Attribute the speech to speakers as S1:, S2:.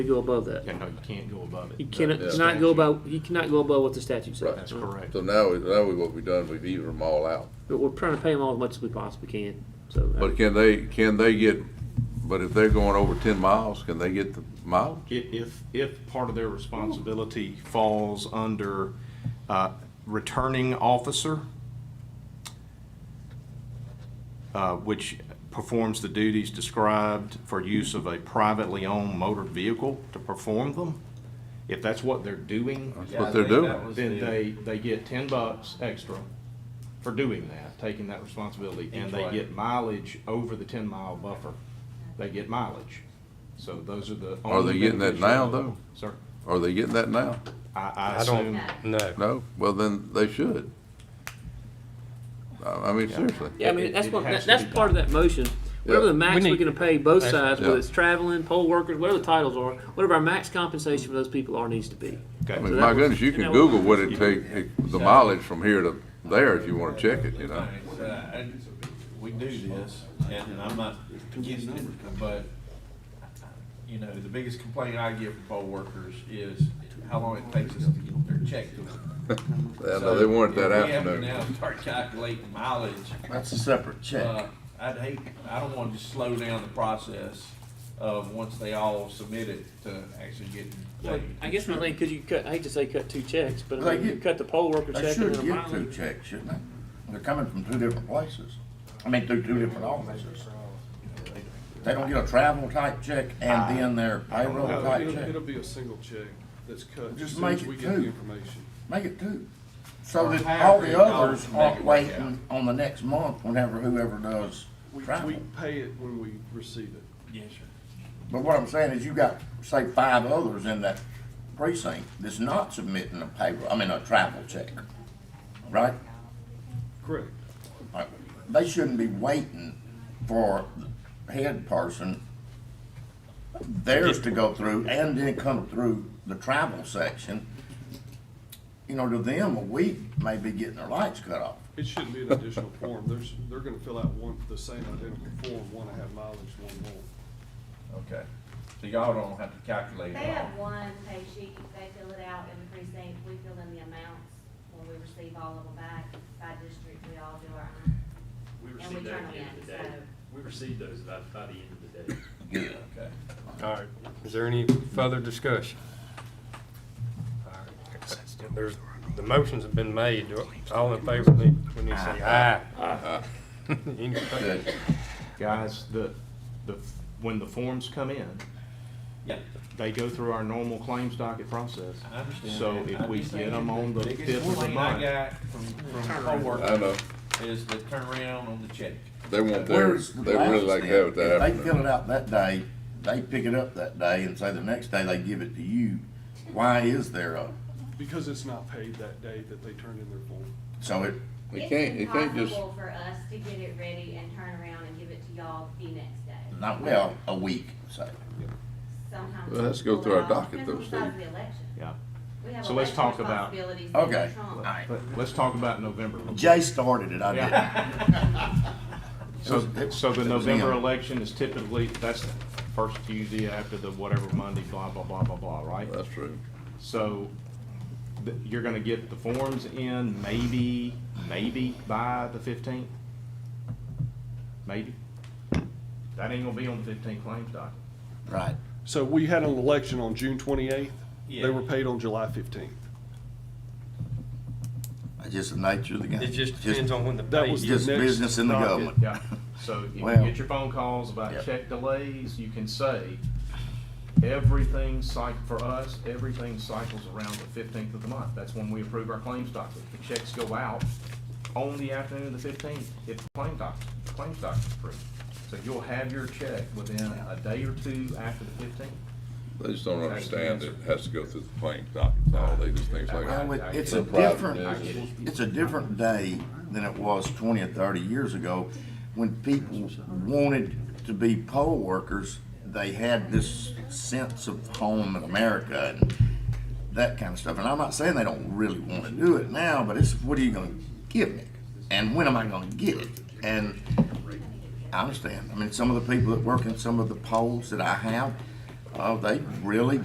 S1: to go above that.
S2: Yeah, no, you can't go above it.
S1: He cannot,
S3: Yeah.
S1: cannot go above, he cannot go above what the statute says. Uh-huh.
S3: Right.
S2: That's correct.
S3: So now, we- now we, what we've done, we've evened them all out.
S1: But we're trying to pay him all as much as we possibly can, so.
S3: But can they, can they get, but if they're going over ten miles, can they get the mileage?
S2: If, if, if part of their responsibility falls under, uh, returning officer, uh, which performs the duties described for use of a privately owned motor vehicle to perform them, if that's what they're doing,
S3: That's what they're doing.
S2: then they, they get ten bucks extra for doing that, taking that responsibility, and they get mileage over the ten mile buffer. They get mileage. So those are the.
S3: Are they
S2: only
S3: getting that
S2: benefits
S3: now,
S2: of-
S3: though?
S2: Sir,
S3: Are they getting that now?
S2: I, I
S4: I don't
S2: assume,
S4: know.
S3: No? Well, then they should. I, I mean, seriously.
S1: Yeah, I mean,
S2: It-
S1: that's
S2: it
S1: what,
S2: has
S1: that- that's
S2: to be
S1: part of that motion. Whatever the max
S4: We
S1: we're
S4: need-
S1: gonna pay both sides,
S3: Yeah.
S1: whether it's traveling, poll workers, whatever the titles are, whatever our max compensation for those people are needs to be.
S3: I
S2: okay,
S3: mean, my goodness, you can Google what it take, the mileage from here to there if you wanna check it, you know?
S5: Uh, and We do this, and I'm not against it, but, you know, the biggest complaint I get from poll workers is how long it takes us to get their check to them.
S3: I know they want it that
S5: So, if we have to
S3: afternoon.
S5: Now start calculating mileage.
S6: That's a separate
S5: Uh, I'd hate, I don't want to just slow down the process of, once they all submit it, to actually getting paid.
S1: I guess my thing, cause you cut, I hate to say cut two checks, but I
S6: They
S1: mean, you
S6: get-
S1: cut the poll worker
S6: They
S1: check and
S6: should
S1: then a
S6: get two
S1: mileage.
S6: checks, shouldn't they? They're coming from two different places. I mean, through two different offices. They don't get a travel type check and then their payroll
S7: No,
S6: type
S7: it'll,
S6: check.
S7: it'll be a single check that's cut as
S6: Just
S7: soon as
S6: make
S7: we
S6: it
S7: get the
S6: two.
S7: information.
S6: Make it two. So
S5: Or
S6: that all
S5: hybrid,
S6: the others
S5: dollars, make
S6: aren't
S5: it work
S6: waiting on the next month whenever whoever does
S7: We, we
S6: travel.
S7: pay it when we receive it.
S5: Yes, sir.
S6: But what I'm saying is you got, say, five others in that precinct that's not submitting a payroll, I mean, a travel check, right?
S7: Correct.
S6: Like, They shouldn't be waiting for the head person, theirs to go through and then come through the travel section. You know, to them, a week may be getting their lights cut off.
S7: It shouldn't be an additional form. There's, they're gonna fill out one, the same identical form, one I have mileage, one more.
S5: Okay, so y'all don't have to calculate
S8: They
S5: it all.
S8: have one pay sheet, they fill it out in the precinct, we fill in the amounts when we receive all of them back. By district, we all do our own.
S9: We
S8: And we
S9: received
S8: turn
S9: that
S8: them
S9: at the end of
S8: in,
S9: the
S8: so.
S9: day. We received those by, by the end of the day.
S6: Good.
S5: Okay.
S4: All right, is there any further discussion? All right. There's, the motions have been made. Do- All in favor, we we need to say aye. Any opposed?
S6: Good.
S2: guys, the, the, when the forms come in,
S5: Yeah.
S2: they go through our normal claims docket process.
S5: I understand.
S2: So
S5: that.
S2: if
S5: I'm
S2: we
S5: just
S2: get
S5: saying
S2: them on the
S5: biggest
S2: fifth of the
S5: complaint I
S2: month,
S5: got from, from coworkers
S3: I know,
S5: is the turnaround on the check.
S3: they want theirs,
S6: Where's the
S3: they really like to have it
S6: balance then?
S3: that
S6: If they fill
S3: afternoon.
S6: it out that day, they pick it up that day and say the next day they give it to you, why is there a,
S7: Because it's not paid that day that they turned in their form.
S6: so it,
S3: It can't, it can't
S8: It's
S3: just,
S8: impossible for us to get it ready and turn around and give it to y'all the next day.
S6: not, well, a week, say.
S8: Sometimes.
S3: Well, let's
S8: we
S3: go
S8: pull
S3: through our
S8: it off
S3: docket,
S8: because of
S3: though,
S8: the size
S3: Steve.
S8: of the election.
S2: yeah.
S8: We have
S2: So let's
S8: election
S2: talk about-
S8: responsibilities that
S6: Okay,
S8: trump.
S6: all right.
S2: But let's talk about November.
S6: Jay started it, I did.
S2: Yeah. So,
S6: It was-
S2: so the
S6: it was
S2: November
S6: him.
S2: election is typically, that's the first Tuesday after the whatever Monday, blah, blah, blah, blah, blah, right?
S3: that's true.
S2: So, th- you're gonna get the forms in maybe, maybe by the fifteenth? Maybe? That ain't gonna be on the fifteenth claims doc.
S6: Right.
S7: So we had an election on June twenty-eighth. They
S5: Yeah.
S7: were paid on July fifteenth.
S6: It's just the nature of the game.
S4: It just depends on when the
S7: That
S4: pay
S7: was
S4: is.
S7: the
S6: Just
S7: next
S6: business in the
S7: docket.
S6: government.
S2: Yeah, so if you
S6: Well-
S2: get your phone calls about
S6: Yep.
S2: check delays, you can say, everything cyc, for us, everything cycles around the fifteenth of the month. That's when we approve our claims docket. The checks go out on the afternoon of the fifteenth, if the claim doc, the claims doc's approved. So you'll have your check within a day or two after the fifteenth.
S3: They just don't understand it has to go through the claims docket, and all they just think it's like.
S6: Well, it- it's a
S3: No problem,
S6: different,
S3: yeah.
S6: it's a different day than it was twenty or thirty years ago, when people wanted to be poll workers, they had this sense of home in America and that kind of stuff, and I'm not saying they don't really wanna do it now, but it's, what are you gonna give me? And when am I gonna get it? And I understand, I mean, some of the people that work in some of the polls that I have, Oh, they really